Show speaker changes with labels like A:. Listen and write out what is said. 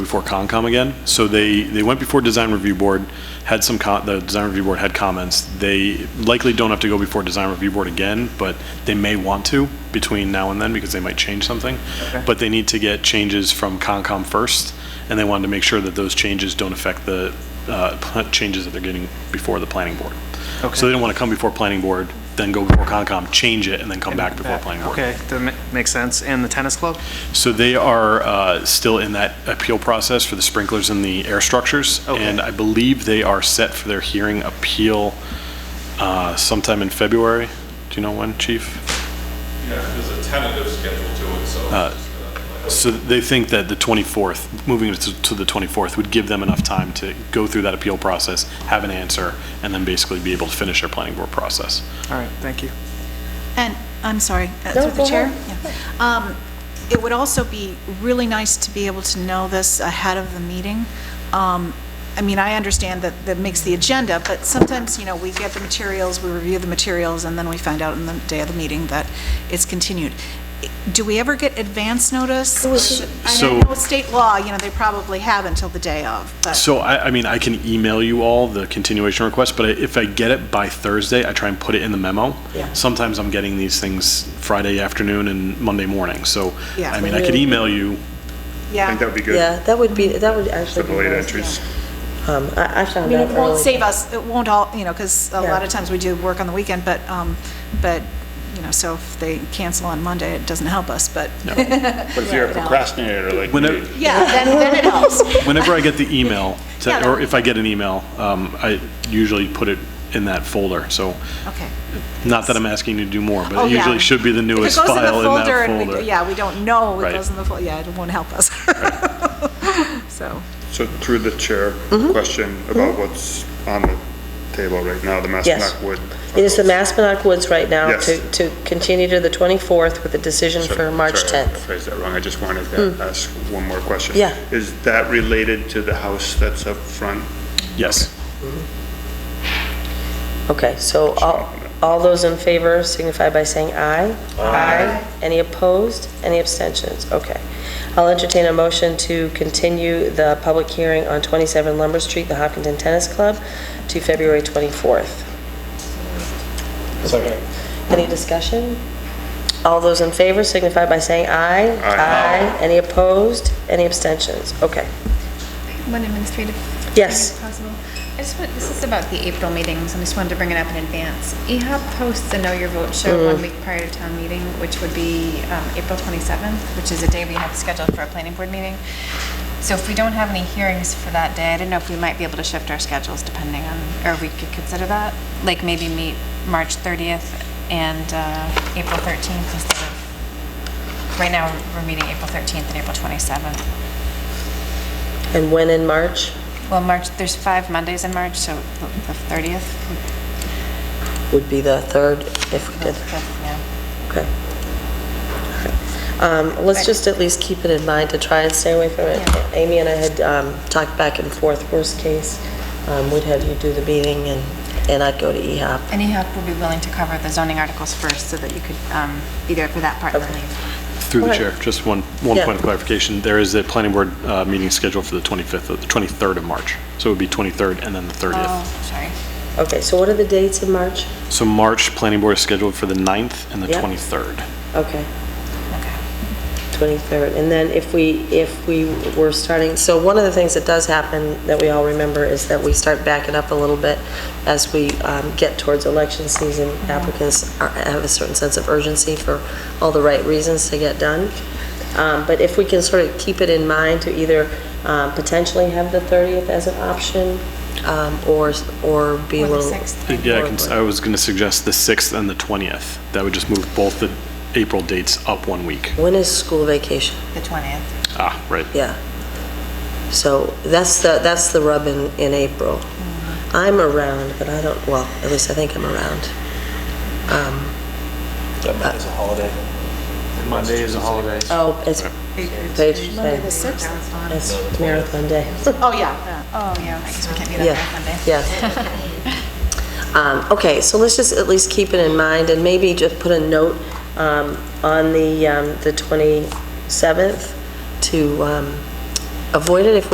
A: before Concom again. So they, they went before Design Review Board, had some, co- the Design Review Board had comments. They likely don't have to go before Design Review Board again, but they may want to between now and then because they might change something.
B: Okay.
A: But they need to get changes from Concom first, and they wanted to make sure that those changes don't affect the uh, pl- changes that they're getting before the planning board. So they
B: Okay.
A: didn't want to come before planning board, then go before Concom, change it, and then come back before planning board.
B: Uh, Okay, that ma- makes sense. And the tennis club?
A: So they are uh, still in that appeal process for the sprinklers and the air structures.
B: Okay.
A: And I believe they are set for their hearing appeal uh, sometime in February. Do you know when, chief?
C: Yeah, there's a tentative schedule to it, so.
D: Uh,
C: uh,
A: So they think that the 24th, moving it to to the 24th, would give them enough time to go through that appeal process, have an answer, and then basically be able to finish their planning board process.
B: All right, thank you.
E: And, I'm sorry, uh,
F: No,
E: through
F: go
E: the chair? Yeah. Um, It would also be really nice to be able to know this ahead of the meeting. Um, I mean, I understand that that makes the agenda, but sometimes, you know, we get the materials, we review the materials, and then we find out on the day of the meeting that it's continued. Do we ever get advance notice?
F: was-
E: I
A: So-
E: know with state law, you know, they probably have until the day of, but...
A: So I, I mean, I can email you all the continuation request, but if I get it by Thursday, I try and put it in the memo.
E: Yeah.
A: Sometimes I'm getting these things Friday afternoon and Monday morning, so,
E: Yeah.
A: I mean, I could email you.
E: Yeah.
D: I think that would be good
F: Yeah, that would be, that would
D: for
F: actually
D: the
F: be
D: late
F: nice.
D: entries.
F: Um, I, I
E: I
F: found
E: mean,
F: out
E: it
F: early.
E: won't save us, it won't all, you know, because a
F: Yeah.
E: lot of times we do work on the weekend, but, um, but, you know, so if they cancel on Monday, it doesn't help us, but,
D: But if you're a procrastinator like
A: Whenever,
D: me,
E: yeah, then, then it helps.
A: whenever I get the email, to-
E: Yeah.
A: or if I get an email, um, I usually put it in that folder, so,
E: Okay.
A: not that I'm asking you to do more,
E: Oh,
A: but it
E: yeah.
A: usually should be the
E: If it
A: newest
E: goes in the
A: file in that
E: and we-
A: folder.
E: Yeah, we don't know
A: Right.
E: it goes in the folder, yeah, it won't help us. So,
D: so through the chair,
F: Mm-hmm.
D: question about what's on the table right now, the
F: Yes.
D: Maspinock Wood.
F: It is the Maspinock Woods right now
D: Yes.
F: to, to continue to the 24th with a decision
D: Sorry,
F: for March
D: sorry, I
F: 10th.
D: Phrased that wrong, I just wanted to ask one more question.
F: Yeah.
D: Is that related to the house that's up front?
A: Yes.
F: Okay, so all, all those in favor signify by saying aye. Aye. Any opposed? Any abstentions? Okay. I'll entertain a motion to continue the public hearing on 27 Lumber Street, the Hopkinton Tennis Club, to February 24th.
G: Second.
F: Any discussion? All those in favor signify by saying aye.
D: Aye.
F: Any opposed? Any abstentions? Okay.
H: One administrative.
F: Yes.
H: thing, if Possible. I just want, this is about the April meetings, and I just wanted to bring it up in advance. E EHOP posts a Know Your Vote show one week prior to town meeting, which would be um, April 27th, which is a day we have scheduled for a planning board meeting. So if we don't have any hearings for that day, I don't know if we might be able to shift our schedules depending on, or we could consider that, like maybe meet March 30th and uh, April 13th instead of, right now, we're meeting April 13th and April 27th.
F: And when in March?
H: Well, March, there's five Mondays in March, so the the 30th,
F: Would be the third if we
H: the
F: did.
H: 5th, yeah.
F: Okay. Um, Let's just at least keep it in mind to try and stay away from it.
H: Yeah.
F: Amy and I had um, talked back and forth, worst case, um, we'd have you do the meeting and, and I'd go to E EHOP.
H: And EHAB will be willing to cover the zoning articles first, so that you could um, be there for that part and then leave.
A: Through the
F: Okay.
A: chair, just one, one
F: Yeah.
A: point of clarification. There is a planning board uh, meeting scheduled for the 25th, of- the 23rd of March. So it would be 23rd and then the 30th.
H: Oh, sorry.
F: Okay, so what are the dates in March?
A: So March, planning board is scheduled for the 9th and the
F: Yeah.
A: 23rd.
F: Okay,
H: Okay.
F: 23rd. And then if we, if we were starting, so one of the things that does happen that we all remember is that we start backing up a little bit as we um, get towards election season.
H: Mm-hmm.
F: Applicants are- have a certain sense of urgency for all the right reasons to get done. Um, But if we can sort of keep it in mind to either um, potentially have the 30th as an option um, or, or be a
H: Or the
F: little...
H: 6th.
A: Yeah, I can- I was going to suggest the 6th and the 20th. That would just move both the April dates up one week.
F: When is school vacation?
H: The 20th.
A: Ah, right.
F: Yeah. So that's the, that's the rub in, in April. I'm around, but I don't, well, at least I think I'm around. Um,
G: That Monday's a holiday. Monday is a holiday.
F: Oh, it's Page-
E: Monday the 6th?
F: it's Marathon Day.
E: Oh, yeah.
H: Oh, yeah, I guess we can't meet on
F: Yeah.
H: that Monday.
F: Yeah. Um, Okay, so let's just at least keep it in mind and maybe just put a note um, on the um, the 27th to um, avoid it if we